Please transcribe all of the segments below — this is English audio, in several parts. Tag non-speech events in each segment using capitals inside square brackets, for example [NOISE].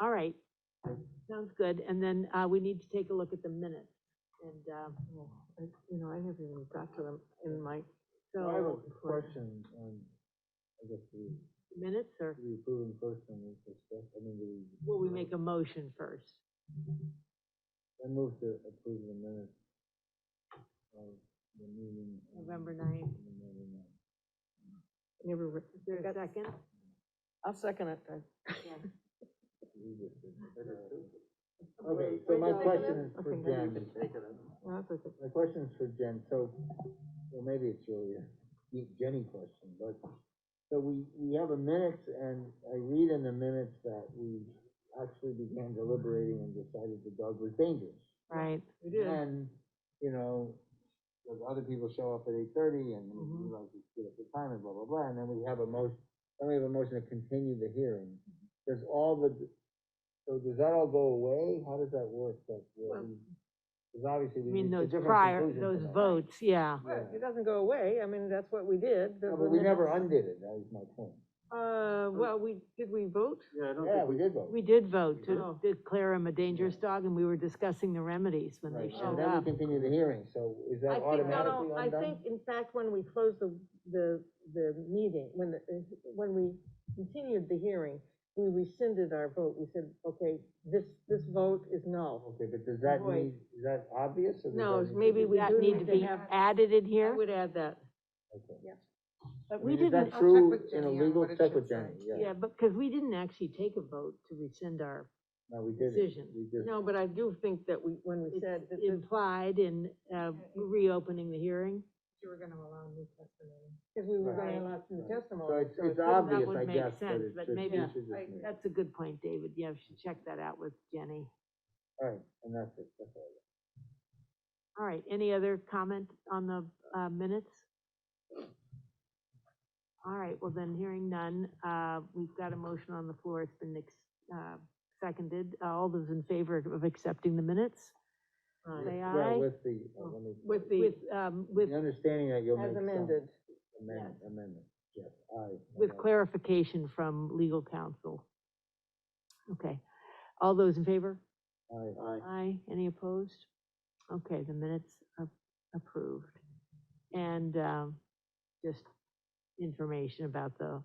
All right, sounds good, and then, uh, we need to take a look at the minutes, and, uh, Well, I- You know, I haven't even got to them in my, I have a so, question on, I guess, the, minutes, or the approving first and we discuss, I mean, the. will we make a motion first? I move to approve the minutes of the meeting. on November 9th. November 9th. never, re- Is there a second? I'll second it. I- We just did it. Okay, Okay, so my wait, question is I for think I Jen, no, that's okay. my question is for Jen, so, well, maybe it's really a Ye- Jenny question, but, so we, we have a minutes, and I read in the minutes that we actually began deliberating and decided the dog was dangerous. Right, We did. Then, you know, those other people show up at eight thirty and we Mm-hmm. Mhm. like to get up the time and blah, blah, blah, and then we have a motion, then we have a motion to continue the hearing. Mm-hmm. Does all the, so does that all go away? How does that work? That, Well- because obviously I we mean, reached a those different prior, conclusion those tonight. votes, yeah, Well, It doesn't go away, I mean, that's what we did. the- No, the but we never minutes- undid it, that was my point. Uh, well, we, did we vote? Yeah, I don't Yeah, think, we did vote. we did vote to Oh. declare him a dangerous dog, and we were discussing the remedies when they Right, showed and then we up. continue the hearing, so is that I think- no, no, automatically I undone? think, in fact, when we closed the, the, the meeting, when, the- when we continued the hearing, we rescinded our vote, we said, okay, this, this vote is null. Okay, but does that Void. need, is that obvious or? does No, that it's need to Maybe be- we That do need needs to to be happen. added in I here? would add that. Okay. But I we mean, is didn't, that I'll check true with in a Jenny on legal what it check should with say. Jenny? yeah, but, because we didn't actually take a vote to rescind our No, we did decision. We did No, but I do think that we, when we It's said that this, implied in, uh, reopening the hearing. You were gonna allow new testimony. because we were Right. gonna allow some Right. So testimony. it's, it's it- that obvious, would I make guess, but sense, it but should, we maybe- should just I- make- That's a good point, David. Yeah, we should check that out with Jenny. all right, and that's it, that's all. All right, any other comment on the, uh, minutes? All right, well then, hearing none, uh, we've got a motion on the floor. It's been, ex- uh, seconded. Uh, All those in favor of accepting the minutes? Aye. Say aye. Well, with the, uh, let me. With the, With, um, with, The understanding that you'll make as some amended, amendment, amendment, yes, aye. with okay. clarification from legal counsel. Okay, all those in favor? Aye. Aye, any opposed? Okay, the minutes are approved. And, um, just information about the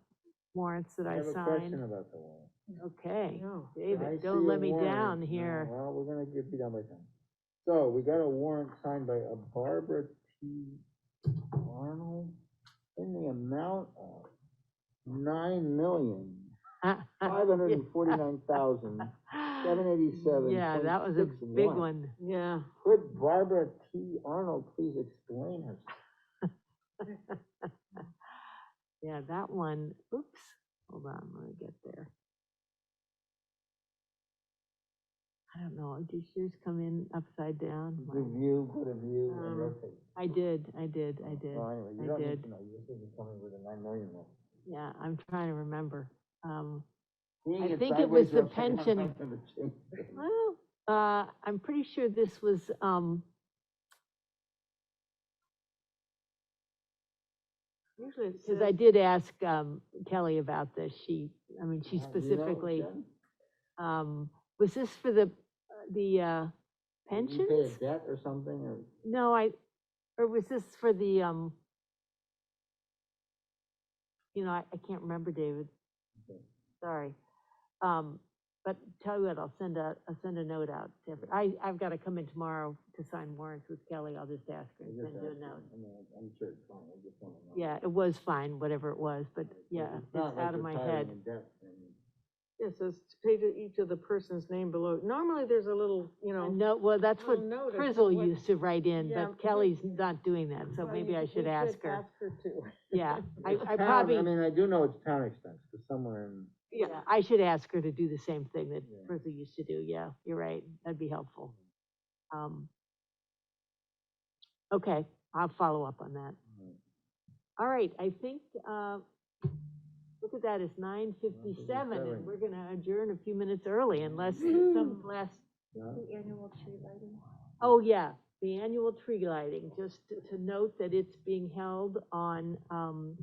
warrants that I I have a signed. question about the warrant. Okay, no. I David, see don't a let me warrant. down No, here. Well, we're gonna get beat down by time. So, we got a warrant signed by a Barbara T. Arnold in the amount of nine million, [LAUGHS] five hundred and forty-nine thousand, seven eighty-seven. Yeah, that was a big one. Yeah. Could Barbara T. Arnold please explain herself? Yeah, that one, oops, hold on, let me get there. I don't know, did yours come in upside down? Mine- Review, go to view, and Um, rotate. I did, I did, I did. Well, anyway, I you don't did. need to know, you just need to come in with a nine million one. Yeah, I'm trying to remember. Um, Seeing I think it was sideways the upside down, pension. [LAUGHS] I'm gonna change it. well, uh, I'm pretty sure this was, um, Usually it because I says- did ask, um, Kelly about this. She, I mean, Uh, she do you know, specifically, Jen? um, was this for the, the, uh, Did you pay a pensions? debt or something, or? No, I, or was this for the, um, you know, I, I can't remember, David. Okay. Sorry. Um, but tell you what, I'll send a, I'll send a note out. to every- I, I've got to come in tomorrow to sign warrants with Kelly. I'll just ask her I and just send you a asked you. note. I mean, I'm sure it's fine, I just wanna know. Yeah, it was fine, whatever it was, but yeah, not it's like out of you're my tied head. in debt, I mean, Yeah, it says to pay to each of the person's name below. Normally, there's a little, you know. No, well, that's what little note of Frizzle what- used to write in, Yeah, but Kelly's but- not doing that, so Well, maybe you- I you should ask her. Ask her too. Yeah, I, it's I town- probably. I mean, I do know it's town expense, because somewhere in, Yeah, I should ask her to do the same thing that Yeah. Bertha used to do, yeah, you're right, that'd be helpful. Um, Okay, I'll follow up on that. Mm. All right, I think, uh, look at that, it's nine fifty-seven, and 9:57. we're gonna adjourn a few minutes early unless Woo. some last, you know? The annual tree lighting. oh, yeah, the annual tree lighting, just to- to note that it's being held on, um,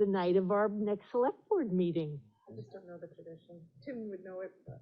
the night of our next select board meeting. I just don't know the tradition. Tim would know it, but.